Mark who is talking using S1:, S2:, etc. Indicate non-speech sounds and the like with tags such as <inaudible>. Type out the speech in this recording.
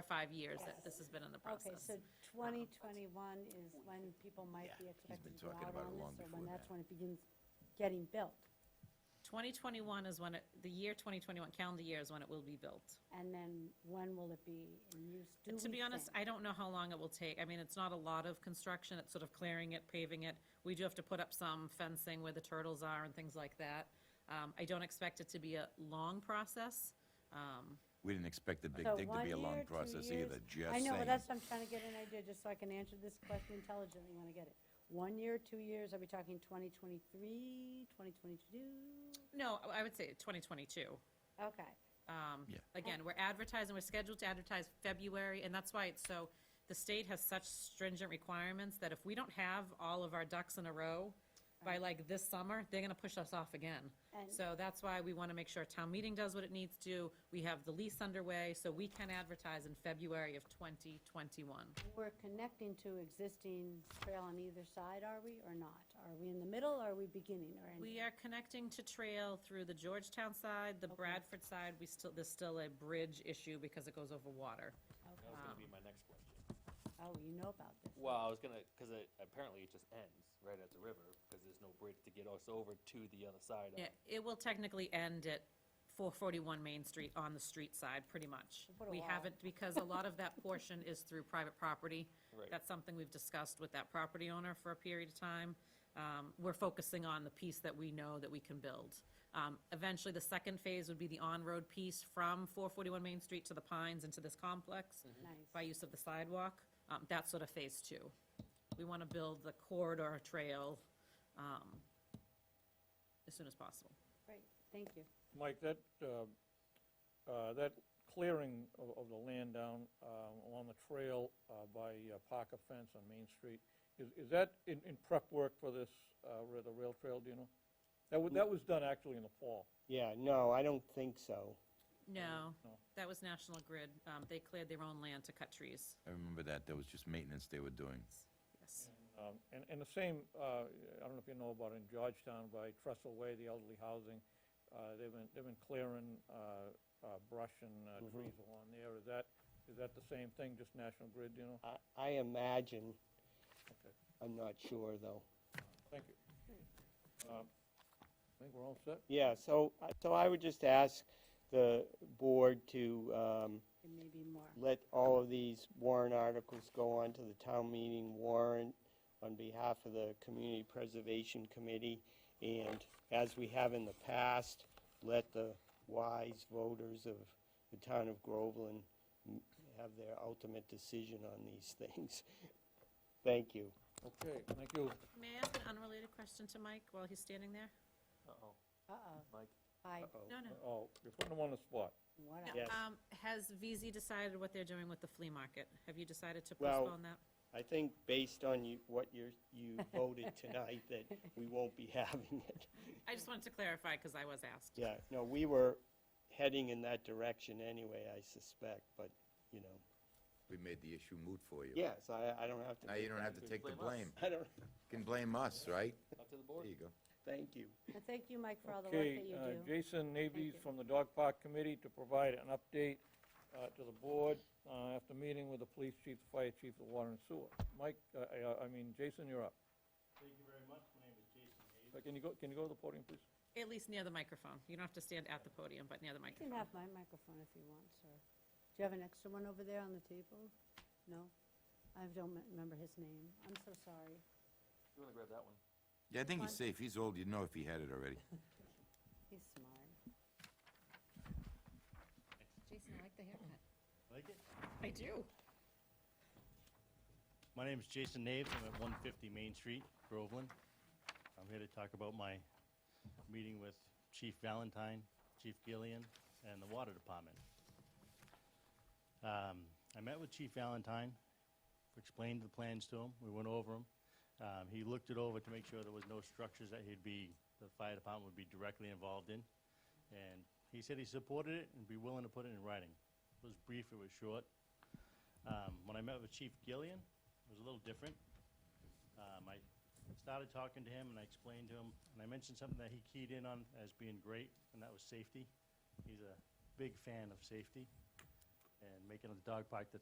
S1: for five years that this has been in the
S2: Okay,
S1: process.
S2: so 2021 is when people might be
S3: been
S2: expected to go
S3: talking
S2: out
S3: about it
S2: on
S3: long
S2: this, or when
S3: before
S2: that's
S3: that.
S2: when it begins getting built?
S1: 2021 is when, it the year 2021, calendar year is when it will be built.
S2: And then when will it be in use? Do
S1: To
S2: we
S1: be honest,
S2: think?
S1: I don't know how long it will take. I mean, it's not a lot of construction, it's sort of clearing it, paving it. We do have to put up some fencing where the turtles are and things like that. Um, I don't expect it to be a long process. Um,
S3: We didn't expect the big
S2: So
S3: thing to
S2: one
S3: be a long
S2: year, two
S3: process
S2: years?
S3: either, just
S2: I
S3: saying.
S2: know, but that's, what I'm trying to get an idea, just so I can answer this question intelligently when I get it. One year, two years, are we talking 2023, 2022?
S1: No, I- I would say 2022.
S2: Okay,
S1: Um,
S3: Yeah.
S1: Again, we're advertising, we're scheduled to advertise February, and that's why it's so, the state has such stringent requirements that if we don't have all of our ducks in a row by like this summer, they're gonna push us off again.
S2: And-
S1: So that's why we wanna make sure town meeting does what it needs to. do. We have the lease underway, so we can advertise in February of 2021.
S2: we're connecting to existing trail on either side, are we, or not? Are we in the middle, or are we beginning, or ending?
S1: We are connecting to trail through the Georgetown side, the Bradford side, we still, there's still a bridge issue because it goes over water.
S4: That was gonna be my next question.
S2: Oh, you know about this.
S4: Well, I was gonna, cause it, apparently it just ends right at the river, cause there's no bridge to get us over to the other side of.
S1: Yeah, it will technically end at 441 Main Street on the street side, pretty much.
S2: What a
S1: We
S2: wall.
S1: haven't, because a lot of that <laughs> portion is through private property.
S4: Right.
S1: That's something we've discussed with that property owner for a period of time. Um, We're focusing on the piece that we know that we can build. Um, Eventually, the second phase would be the on-road piece from 441 Main Street to the Pines into this complex by
S2: Nice.
S1: use of the sidewalk. Um, That's sort of phase two. We want to build the corridor trail um, as soon as possible.
S2: Great, thank you.
S5: Mike, that, uh, uh, that clearing of- of the land down um, along the trail uh, by uh, Parker Fence on Main Street, is is that in in prep work for this, uh, ra- the rail trail, do you know? That was, that was done actually in the fall.
S6: Yeah, no, I don't think so.
S1: No,
S5: No.
S1: that was National Grid. Um, They cleared their own land to cut trees.
S3: I remember that, that was just maintenance they were doing.
S1: Yes.
S5: Um, And, and the same, uh, I don't know if you know about in Georgetown by Trestle Way, the elderly housing, uh, they've been, they've been clearing uh, uh, brush and uh, trees along there. Is that, is that the same thing, just National Grid, do you know?
S6: I, I imagine,
S5: Okay.
S6: I'm not sure, though.
S5: Thank you. Um, I think we're all set.
S6: Yeah, so, I- so I would just ask the board to um,
S2: There may be more.
S6: let all of these warrant articles go on to the town meeting warrant on behalf of the Community Preservation Committee, and as we have in the past, let the wise voters of the town of Groveland m- have their ultimate decision on these <laughs> things. Thank you.
S5: Okay, thank you.
S1: May I ask an unrelated question to Mike while he's standing there?
S4: Uh-oh,
S2: Uh-oh,
S4: Mike.
S2: I,
S1: No, no.
S5: Oh, you're putting them on the spot.
S2: what
S1: No,
S2: a-
S6: Yes.
S1: um, Has VZ decided what they're doing with the flea market? Have you decided to
S6: Well-
S1: postpone that?
S6: I think based on you, what you're, you voted tonight, that we won't be <laughs> having it.
S1: I just wanted to clarify because I was asked.
S6: Yeah, no, we were heading in that direction anyway, I suspect, but, you know.
S3: We made the issue moot for you.
S6: Yes, I, I don't have to.
S3: Now you don't have to take the blame.
S4: Blame
S6: <laughs> I don't,
S3: You Can blame us, right?
S4: Up to the
S3: There
S4: board.
S3: you go.
S6: thank you.
S2: And thank you, Mike, for all the work
S5: Okay,
S2: that you
S5: uh,
S2: do.
S5: Jason Navies
S2: you.
S5: from the Dog Park Committee to provide an update uh, to the board uh, after meeting with the police chief, the fire chief, the water and sewer. Mike, uh, I- I mean, Jason, you're up.
S7: Thank you very much. My name is Jason Hayes.
S5: Uh, Can you go, can you go to the podium, please?
S1: At least near the microphone. You don't have to stand at the podium, but near the
S2: You can
S1: microphone.
S2: have my microphone if you want, sir. Do you have an extra one over there on the table? No? I don't me- remember his name. I'm so sorry.
S4: You wanna grab that one?
S3: Yeah, I think he's safe. He's old. You'd know if he had it already.
S2: He's smart.
S1: Jason, I like the haircut.
S7: Like it?
S1: I do.
S7: My name is Jason Naves. I'm at 150 Main Street, Groveland. I'm here to talk about my meeting with Chief Valentine, Chief Gillian, and the Water Department. Um, I met with Chief Valentine, explained the plans to him. We went over them. Um, he looked it over to make sure there was no structures that he'd be, the fire department would be directly involved in. And he said he supported it and be willing to put it in writing. It was brief, it was short. Um, when I met with Chief Gillian, it was a little different. Um, I started talking to him and I explained to him, and I mentioned something that he keyed in on as being great, and that was safety. He's a big fan of safety. and making a dog park that's